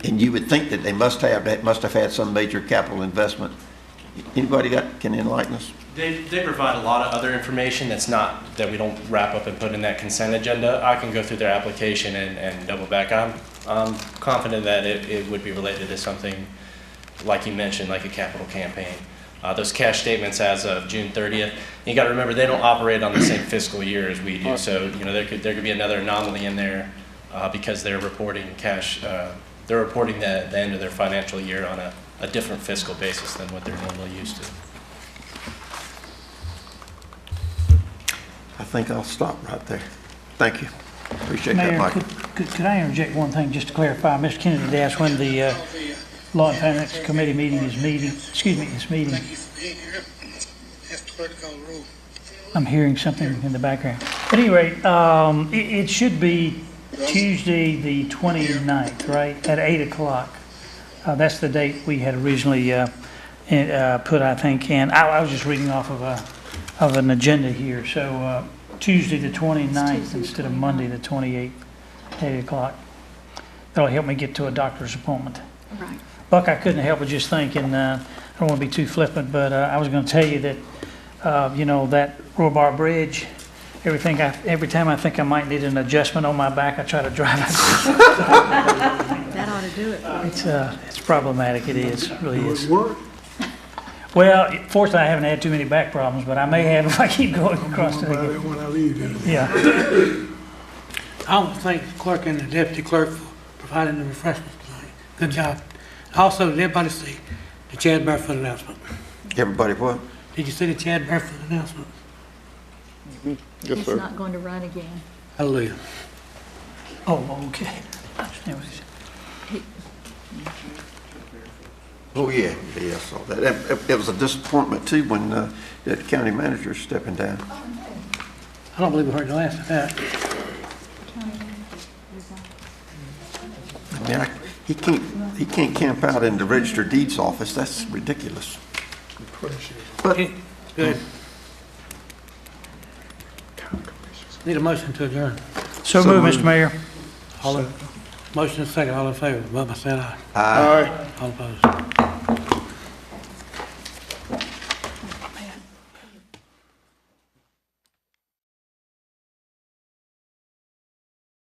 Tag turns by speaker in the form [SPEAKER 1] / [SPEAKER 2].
[SPEAKER 1] And you would think that they must have, that must have had some major capital investment. Anybody got, can enlighten us?
[SPEAKER 2] They, they provide a lot of other information that's not, that we don't wrap up and put in that consent agenda. I can go through their application and, and double back. I'm, I'm confident that it, it would be related to something, like you mentioned, like a capital campaign. Uh, those cash statements as of June thirtieth, you gotta remember, they don't operate on the same fiscal year as we do. So, you know, there could, there could be another anomaly in there, uh, because they're reporting cash, uh, they're reporting the, the end of their financial year on a, a different fiscal basis than what they're normally used to.
[SPEAKER 1] I think I'll stop right there. Thank you. Appreciate that,
[SPEAKER 3] Mayor,
[SPEAKER 1] Michael.
[SPEAKER 3] could, could- could I interject one thing just to clarify? Mr. Kennedy did ask when the uh, Law and Finance Committee meeting is meeting, excuse me, is meeting.
[SPEAKER 4] Thank you for being here. That's protocol rule.
[SPEAKER 3] I'm hearing something in the background. At any rate, um, it, it should be Tuesday, the 29th, right, at 8 o'clock. Uh, that's the date we had originally, uh, in- uh, put, I think, in. I, I was just reading off of a, of an agenda here, so, uh, Tuesday, the 29th, instead of Monday, the 28th, 8 o'clock. That'll help me get to a doctor's appointment.
[SPEAKER 5] Right.
[SPEAKER 3] Buck, I couldn't help but just thinking, uh, I don't want to be too flippant, but uh, I was going to tell you that, uh, you know, that Robar Bridge, everything, I- every time I think I might need an adjustment on my back, I try to drive it.
[SPEAKER 5] That ought to do it. for you.
[SPEAKER 3] It's uh, it's problematic, it is, it really is.
[SPEAKER 6] Work,
[SPEAKER 3] Well, fortunately, I haven't had too many back problems, but I may have if I keep going across it
[SPEAKER 6] about
[SPEAKER 3] again.
[SPEAKER 6] it when I leave here.
[SPEAKER 3] Yeah,
[SPEAKER 7] I want to thank the clerk and the deputy clerk for providing the refreshments tonight. Good job. Also, did everybody see the Chad Barefoot announcement?
[SPEAKER 1] Everybody, what?
[SPEAKER 7] Did you see the Chad Barefoot announcement?
[SPEAKER 5] It's not going to run again.
[SPEAKER 7] Hallelujah.
[SPEAKER 3] oh, okay. I understand what you said.
[SPEAKER 1] Oh, yeah, yeah, I saw that. It- It it was a disappointment too when uh, that county manager stepping down.
[SPEAKER 7] I don't believe we heard the last of that.
[SPEAKER 1] I mean, I- he can't, he can't camp out in the register deeds office. That's ridiculous. But
[SPEAKER 7] Good. Need a motion to adjourn.
[SPEAKER 3] So
[SPEAKER 1] So
[SPEAKER 3] moved,
[SPEAKER 1] moved.
[SPEAKER 3] Mr. Mayor.
[SPEAKER 7] All in- Motion is second, all in favor. Bubba said aye.
[SPEAKER 1] I
[SPEAKER 7] All opposed.